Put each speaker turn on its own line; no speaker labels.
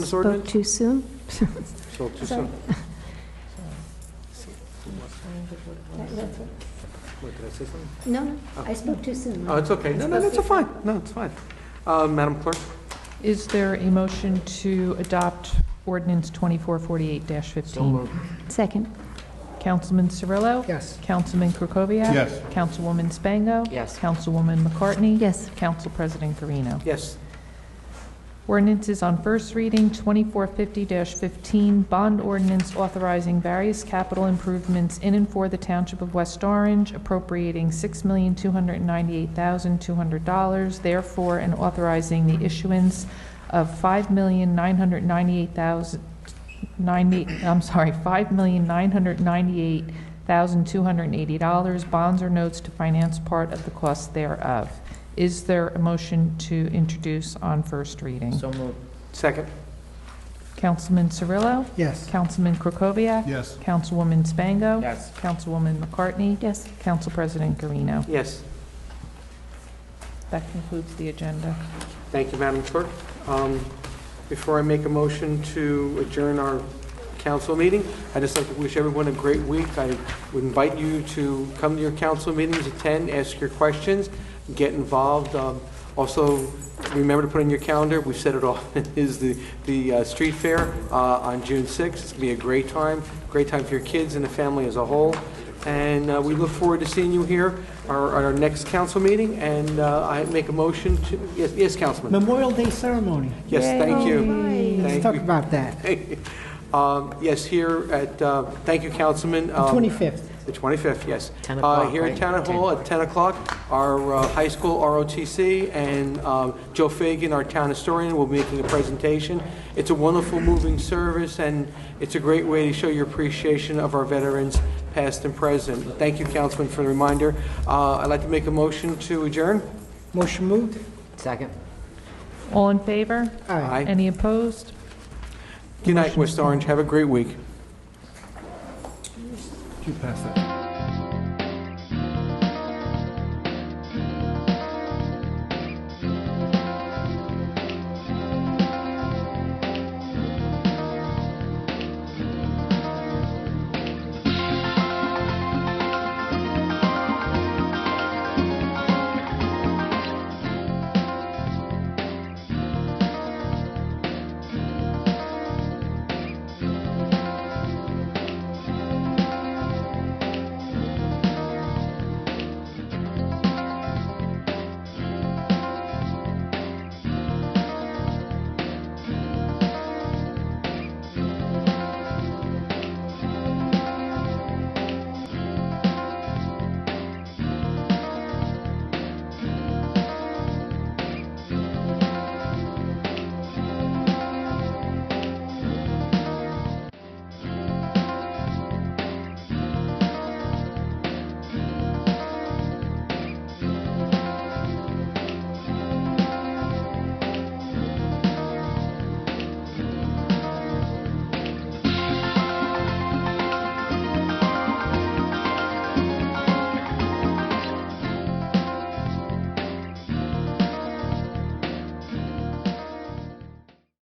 this
Spoke
ordinance?
too soon?
So too soon. What, did I say something?
No, I spoke too soon.
Oh, it's okay. No, no, that's a fine. No, it's fine. Uh, Madam Clerk?
Is there a motion to adopt ordinance 2448-15?
Second.
Councilman Cirillo?
Yes.
Councilman Krokoviac?
Yes.
Councilwoman Spango?
Yes.
Councilwoman McCartney?
Yes.
Council President Carino?
Yes.
Ordinances on first reading, 2450-15, bond ordinance authorizing various capital improvements in and for the Township of West Orange, appropriating $6,298,200, therefore, and authorizing the issuance of $5,998,000, 98 I'm sorry, $5,998,280 bonds or notes to finance part of the cost thereof. Is there a motion to introduce on first reading?
So moved.
Second?
Councilman Cirillo?
Yes.
Councilman Krokoviac?
Yes.
Councilwoman Spango?
Yes.
Councilwoman McCartney?
Yes.
Council President Garino.
Yes.
That concludes the agenda.
Thank you, Madam Clerk. Um, Before I make a motion to adjourn our council meeting, I'd just like to wish everyone a great week. I would invite you to come to your council meetings, attend, ask your questions, get involved. Um, Also, remember to put in your calendar, we've set it off, is the, the uh, street fair uh, on June 6th. It's going to be a great time, great time for your kids and the family as a whole. And uh, we look forward to seeing you here our- at our next council meeting, and uh, I make a motion to, yes, yes, Councilman?
Memorial Day ceremony.
Yes, thank you.
Let's
Thank
talk
you.
about that.
Um, Yes, here at, uh, thank you, Councilman. um,
25th.
The 25th, yes.
10
Uh,
o'clock,
Here at
right?
Town
10.
Hall at 10 o'clock, our uh, high school ROTC and um, Joe Fagan, our town historian, will be making a presentation. It's a wonderful, moving service, and it's a great way to show your appreciation of our veterans, past and present. Thank you, Councilman, for the reminder. Uh, I'd like to make a motion to adjourn.
Motion moved? Second.
All in favor?
Aye.
Aye.
Any opposed?
Good night, West Orange. Have a great week.
You pass that.